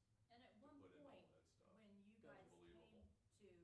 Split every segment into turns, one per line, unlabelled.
uh,
uh,
um,
Oh,
and we did not rezone it.
Right,
I figured that was just them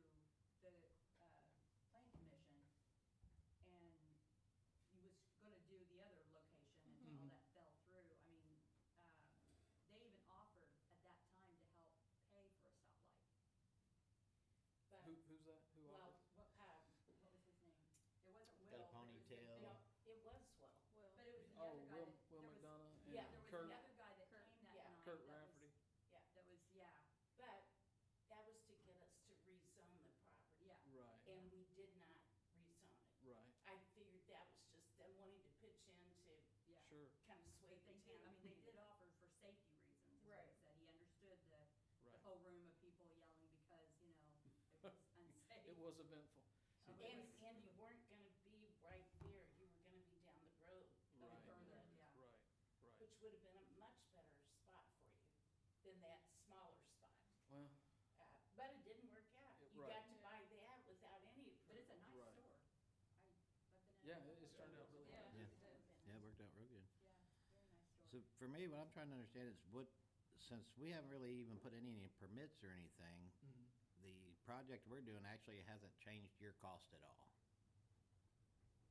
wanting to pitch in to
Yeah.
sure,
kind of sway
But they
the
did, I
town.
mean, they did offer for safety reasons, is what he
Right.
said. He understood the, the
right.
whole room of people yelling because, you know, it was unsafe.
It was eventful,
Oh, it
And,
was-
and you weren't gonna be right there, you were gonna be down the road,
oh,
right,
Further, yeah.
right, right.
which would have been a much better spot for you than that smaller spot.
Well,
Uh, But it didn't work out.
It-
You
right.
got to buy that without any approval.
But it's a nice
Right.
store. I, I've been in.
yeah, it- it's turned out really
Yeah.
well.
Yeah.
It would have been
Yeah, it
nice.
worked out
Yeah, very nice store.
real good. So for me, what I'm trying to understand is what, since we haven't really even put any permits or anything,
Mhm.
the project we're doing actually hasn't changed your cost at all.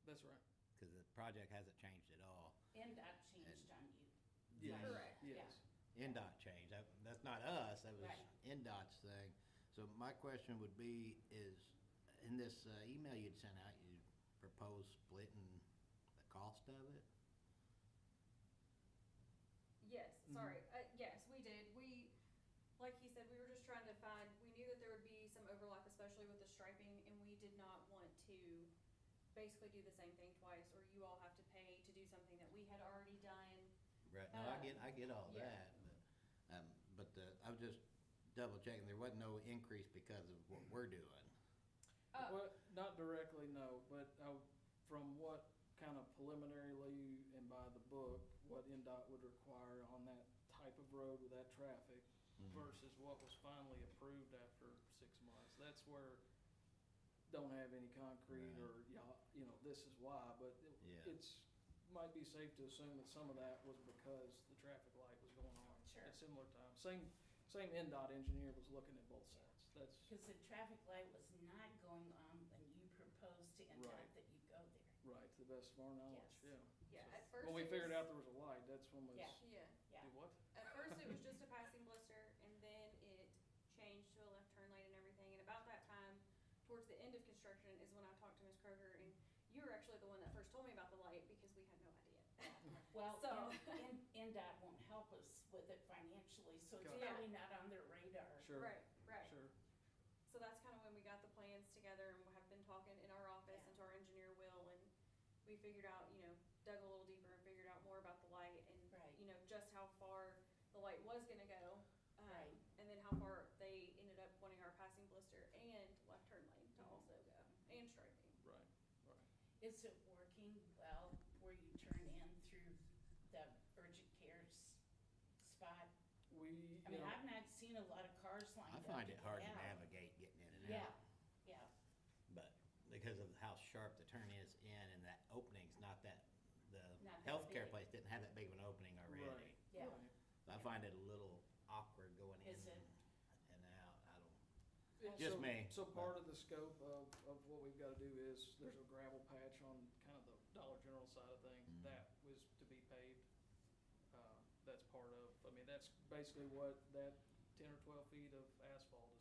That's right.
Because the project hasn't changed at all.
NDOT changed on you.
Yes,
Correct.
Yes,
NDOT changed. That, that's not us, that was
Right.
NDOT's thing. So my question would be is, in this uh, email you'd sent out, you proposed splitting the cost of it?
Yes, sorry. Uh, yes, we did. We, like he said, we were just trying to find, we knew that there would be some overlap, especially with the striping, and we did not want to basically do the same thing twice, or you all have to pay to do something that we had already done.
Right, no, I
Uh,
get, I get all
yeah.
that, but, um, but the, I was just double checking, there wasn't no increase because of what we're doing.
Oh.
Uh,
Well, not directly, no, but uh, from what kind of preliminarily and by the book, what NDOT would require on that type of road with that traffic
Mhm.
versus what was finally approved after six months. That's where don't have any concrete
Right.
or, yeah, you know, this is why, but it-
Yeah.
it's, might be safe to assume that some of that was because the traffic light was going on
Sure.
at similar times. Same, same NDOT engineer was looking at both sides. That's,
Because the traffic light was not going on when you proposed to NDOT
Right.
that you go there.
Right, to the best of our knowledge,
Yes.
yeah.
Yeah,
So-
at first.
When we
it was-
figured out there was a light, that's when we.
Yeah.
Yeah,
Yeah.
Do what?
at first it was just a passing blister, and then it changed to a left turn lane and everything, and about that time, towards the end of construction is when I talked to Ms. Kroger, and you were actually the one that first told me about the light, because we had no idea.
Well,
So-
N- N- NDOT won't help us with it financially, so it's
Got
it.
probably not on their radar.
Sure.
Right, right.
Sure,
So that's kind of when we got the plans together and we have been talking in our office and to our engineer Will and we figured out, you know, dug a little deeper and figured out more about the light and,
Right.
you know, just how far the light was gonna go. um,
Right.
And then how far they ended up wanting our passing blister and left turn lane
Mm-hmm.
to also go and striping.
right, right.
Is it working well where you turn in through the urgent care s- spot?
We,
I
you
mean,
know,
I've not seen a lot of cars lined
I
up.
find it
get
hard to
out.
navigate getting in and
Yeah,
out,
yeah,
but because of how sharp the turn is in and that opening's not that, the
Not that
healthcare
big.
place didn't have that big of an opening already.
right,
Yeah.
right.
So I find it a little awkward going in
Is it?
and out, I don't,
It-
Just
so-
me,
So part
but-
of the scope of, of what we've gotta do is, there's a gravel patch on kind of the Dollar General side of things,
Mhm.
that was to be paved. Uh, That's part of, I mean, that's basically what that ten or twelve feet of